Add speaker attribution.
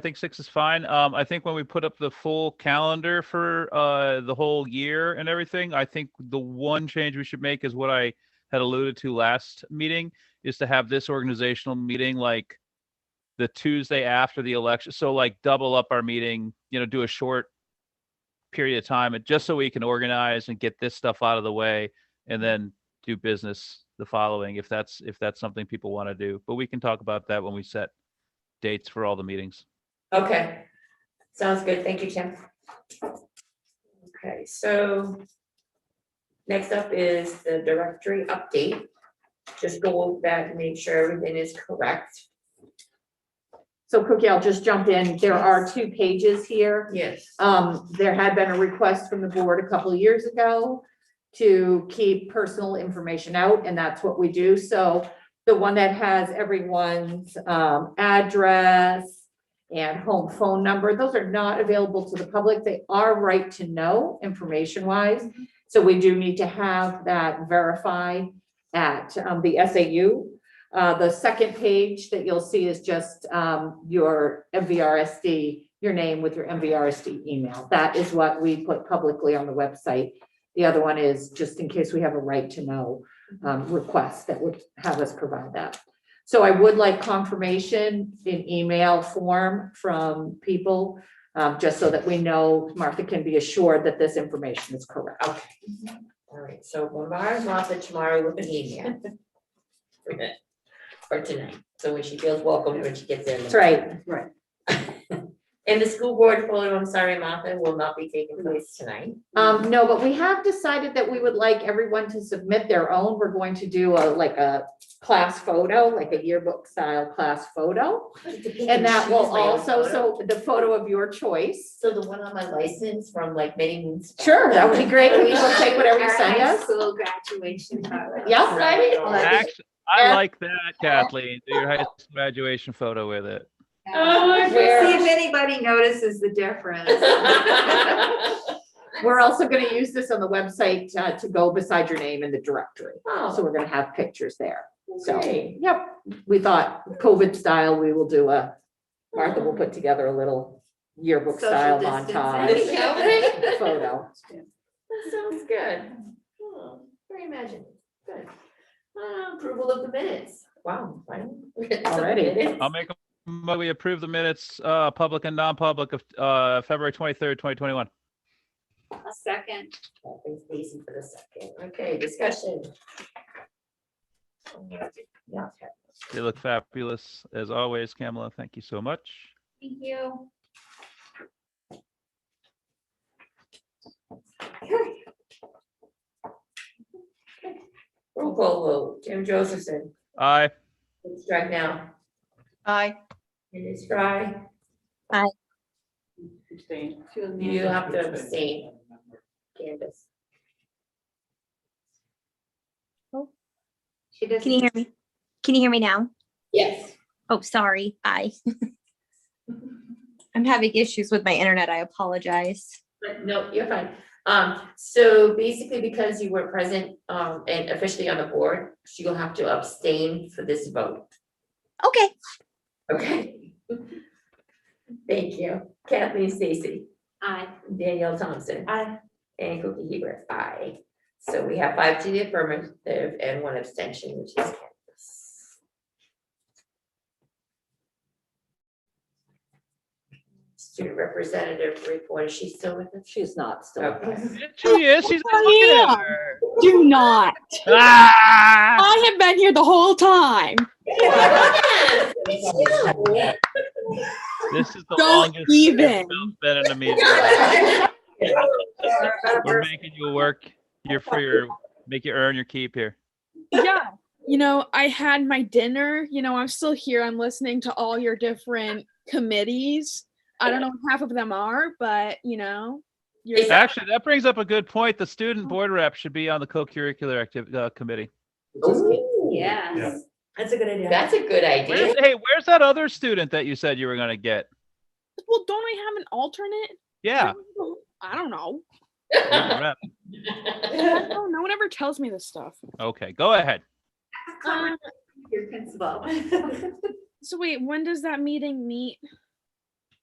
Speaker 1: think six is fine. Um, I think when we put up the full calendar for uh the whole year and everything, I think the one change we should make is what I had alluded to last meeting is to have this organizational meeting like the Tuesday after the election. So like double up our meeting, you know, do a short period of time and just so we can organize and get this stuff out of the way and then do business the following if that's if that's something people want to do. But we can talk about that when we set dates for all the meetings.
Speaker 2: Okay, sounds good. Thank you, Tim. Okay, so next up is the directory update. Just go back and make sure everything is correct.
Speaker 3: So Cookie, I'll just jump in. There are two pages here.
Speaker 2: Yes.
Speaker 3: Um, there had been a request from the board a couple of years ago to keep personal information out, and that's what we do. So the one that has everyone's, um, address and home phone number, those are not available to the public. They are right to know information-wise. So we do need to have that verified at, um, the SAU. Uh, the second page that you'll see is just, um, your MVRSD, your name with your MVRSD email. That is what we put publicly on the website. The other one is just in case we have a right to know, um, request that would have us provide that. So I would like confirmation in email form from people, um, just so that we know, Martha can be assured that this information is correct.
Speaker 2: All right, so Mara's off at tomorrow with an email. For that- For tonight, so when she feels welcome, when she gets there.
Speaker 3: That's right.
Speaker 2: And the school board photo, I'm sorry, Martha, will not be taking place tonight.
Speaker 3: Um, no, but we have decided that we would like everyone to submit their own. We're going to do a, like a class photo, like a yearbook style class photo. And that will also, so the photo of your choice.
Speaker 2: So the one on my license from like many moons. back.
Speaker 3: Sure, that would be great. We will take whatever you
Speaker 4: Our
Speaker 3: send
Speaker 4: high
Speaker 3: us.
Speaker 4: School graduation. photo.
Speaker 3: Yep, right?
Speaker 1: Actually, I
Speaker 3: Yeah.
Speaker 1: like that, Kathleen. Do your high school graduation photo with it.
Speaker 4: Oh,
Speaker 3: Where-
Speaker 4: See if anybody notices the difference.
Speaker 2: Oh,
Speaker 3: We're also gonna use this on the website uh, to go beside your name in the directory. So
Speaker 2: Oh,
Speaker 3: we're gonna have pictures there. So,
Speaker 2: great.
Speaker 3: yep, we thought COVID style, we will do a, Martha will put together a little yearbook
Speaker 4: Social
Speaker 3: style
Speaker 4: distancing.
Speaker 3: montage photo.
Speaker 2: That Sounds good. Hmm, Very imaginative, good. Uh, Approval of the minutes. Wow. fine.
Speaker 3: Already.
Speaker 2: Minutes.
Speaker 1: I'll make a, mo- we approve the minutes, uh, public and non-public of, uh, February twenty-third, twenty twenty-one.
Speaker 4: A second.
Speaker 2: That brings Daisy for the second. Okay, discussion. Yeah, okay.
Speaker 1: They look fabulous as always, Kamala. Thank you so much.
Speaker 4: Thank you.
Speaker 2: Roll call vote. Tim Josephson,
Speaker 1: Aye.
Speaker 2: it's right now.
Speaker 5: Aye.
Speaker 2: It is dry. You have to abstain. Candace.
Speaker 4: She does.
Speaker 6: Oh. Can you hear me? Can you hear me now?
Speaker 2: Yes.
Speaker 6: Oh, sorry. Hi. I'm having issues with my internet. I apologize.
Speaker 2: But no, you're fine. Um, so basically because you were present, um, and officially on the board, she will have to abstain for this vote.
Speaker 6: Okay.
Speaker 2: Okay. Thank you. Kathleen Stacy,
Speaker 4: Aye.
Speaker 2: Danielle Thompson,
Speaker 4: Aye.
Speaker 2: and Cookie Hebert, aye. So we have five to the affirmative and one abstention, which is Candace. Student representative report, is she still with us?
Speaker 3: She's not still.
Speaker 2: Okay.
Speaker 1: She is. She's not looking at her.
Speaker 7: Do not.
Speaker 1: Ah!
Speaker 7: I have been here the whole time.
Speaker 2: Yes, me too.
Speaker 1: This is the
Speaker 7: Don't
Speaker 1: longest it's
Speaker 7: even.
Speaker 1: been in a meeting. We're making you work. You're for your, make you earn your keep here.
Speaker 7: Yeah. You know, I had my dinner. You know, I'm still here. I'm listening to all your different committees. I don't know what half of them are, but you know, you're
Speaker 2: Is-
Speaker 1: Actually, that brings up a good point. The student board rep should be on the co-curricular activ- uh, committee.
Speaker 2: Ooh,
Speaker 4: Yes.
Speaker 8: That's a good idea.
Speaker 2: That's a good idea.
Speaker 1: Where's, hey, where's that other student that you said you were gonna get?
Speaker 7: well, don't I have an alternate?
Speaker 1: Yeah.
Speaker 7: I don't know.
Speaker 1: student rep.
Speaker 7: I don't know. No one ever tells me this stuff.
Speaker 1: Okay, go ahead.
Speaker 4: Your principal.
Speaker 7: So wait, when does that meeting meet?